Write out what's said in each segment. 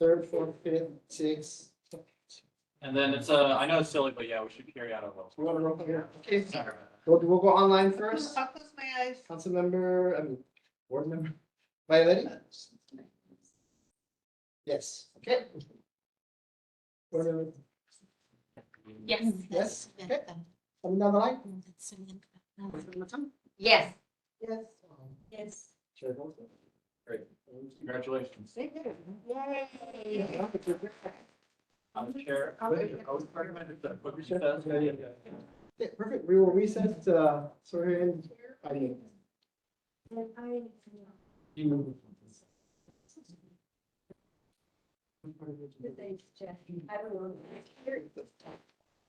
Third, fourth, fifth, sixth. And then it's, uh, I know it's silly, but yeah, we should carry out a little. We're gonna roll call here. Okay, Sorry. we'll, we'll go online first. I'll close my eyes. Councilmember, I mean, board member, Violetti? Yes, okay. Board member, Mm-hmm. Yes. Yes, okay. Coming down the line? Yes. Yes. Yes. Chair votes yes. Congratulations. I'm the chair. I was recommended that, what you said. Okay, perfect, we will recess, uh, sorry, and, I mean, you. I don't know.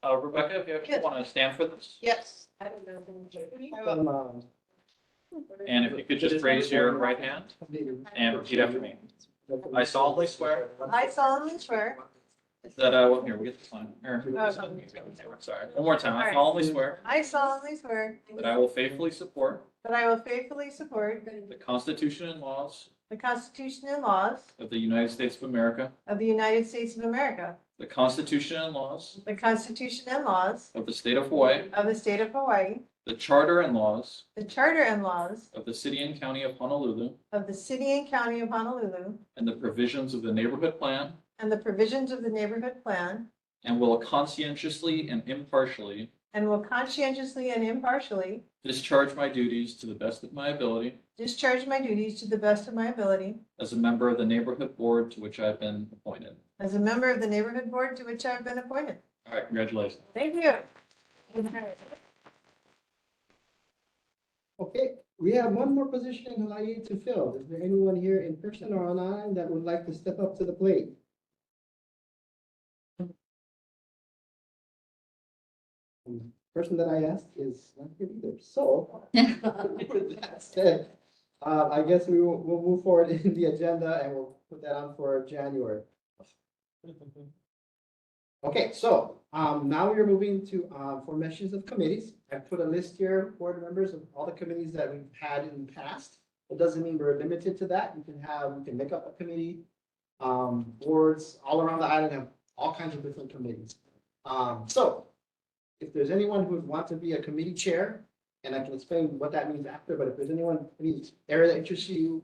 Uh, Rebecca, if you actually want to stand for this, Yes. I don't know. I will. Um, um, and if you could just raise your right hand and repeat after me. I solemnly swear I solemnly swear. that, uh, well, here, we get this line. Here. Sorry, one more time. I solemnly swear I solemnly swear that I will faithfully support that I will faithfully support the Constitution and laws the Constitution and laws of the United States of America, of the United States of America, the Constitution and laws the Constitution and laws of the state of Hawaii, of the state of Hawaii, the charter and laws the charter and laws of the city and county of Honolulu, of the city and county of Honolulu, and the provisions of the neighborhood plan, and the provisions of the neighborhood plan, and will conscientiously and impartially and will conscientiously and impartially discharge my duties to the best of my ability discharge my duties to the best of my ability as a member of the neighborhood board to which I've been appointed. as a member of the neighborhood board to which I have been appointed. All right, congratulations. Thank you. Okay, we have one more position in Hawaii to fill. Is there anyone here in person or online that would like to step up to the plate? And the Person that I asked is not here either, so. with that said, Uh, I guess we will, we'll move forward in the agenda and we'll put that on for January. Okay, so, um, now we are moving to, uh, formations of committees. I put a list here, board members of all the committees that we've had in the past. It doesn't mean we're limited to that. You can have, you can make up a committee. Um, boards all around the island have all kinds of different committees. Um, so if there's anyone who would want to be a committee chair, and I can explain what that means after, but if there's anyone, any area that interests you,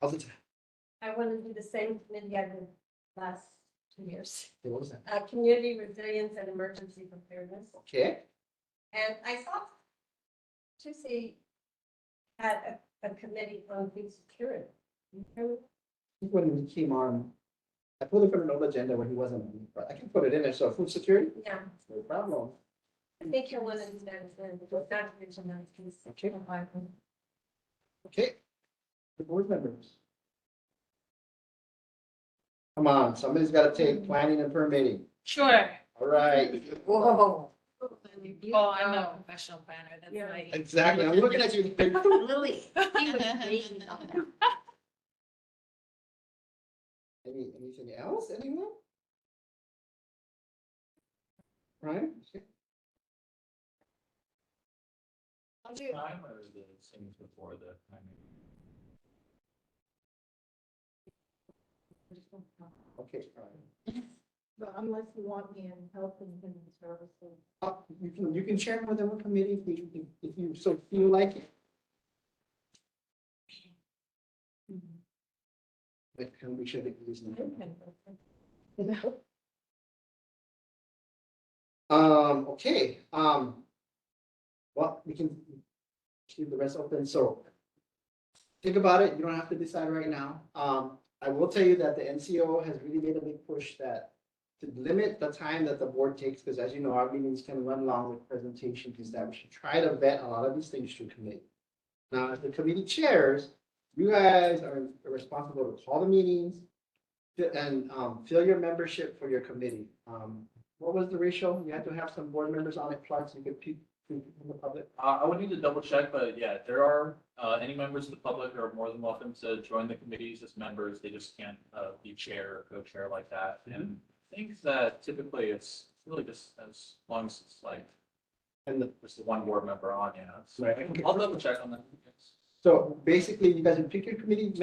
how's it, I want to do the same committee I've been last two years. what was that? Uh, community resilience and emergency preparedness. Okay, And I saw Tuesday had a, a committee on food security. when he came on, I pulled it from an old agenda when he wasn't, on, but I can put it in there, so food security, Yeah, no problem. I think you'll want to do that, then, not to mention that. piece. Okay. Okay. The board members. Come on, somebody's gotta take planning and permitting, Sure. all right, Whoa. Well, I'm not a professional planner, that's Yeah. why. exactly, I'm looking at you. Lily. he was amazing on that. Any, anything else, anyone? Right? I'll do. Time or the things before the timing? Okay, fine. But unless you want me in health and human services. Uh, you can, you can share with them a committee if you, if- if you so feel like it. But can we share the reason? Um, okay, um. Well, we can keep the rest open, so. Think about it, you don't have to decide right now. Um, I will tell you that the NCO has really made a big push that. To limit the time that the board takes, because as you know, our meetings can run long with presentations, is that we should try to vet a lot of these things through committee. Now, as the committee chairs, you guys are responsible to call the meetings. fi- And um, fill your membership for your committee. Um, what was the ratio? You had to have some board members on it, plus you could pick from the public. Uh, I would need to double check, but yeah, if there are, uh, any members of the public are more than welcome to join the committees as members. They just can't, uh, be chair or co-chair like that. And I think that typically it's really just as long as it's like, And the- just the one board member on, yeah. So Right. I'll double check on that. yes. So basically, you guys would pick your committee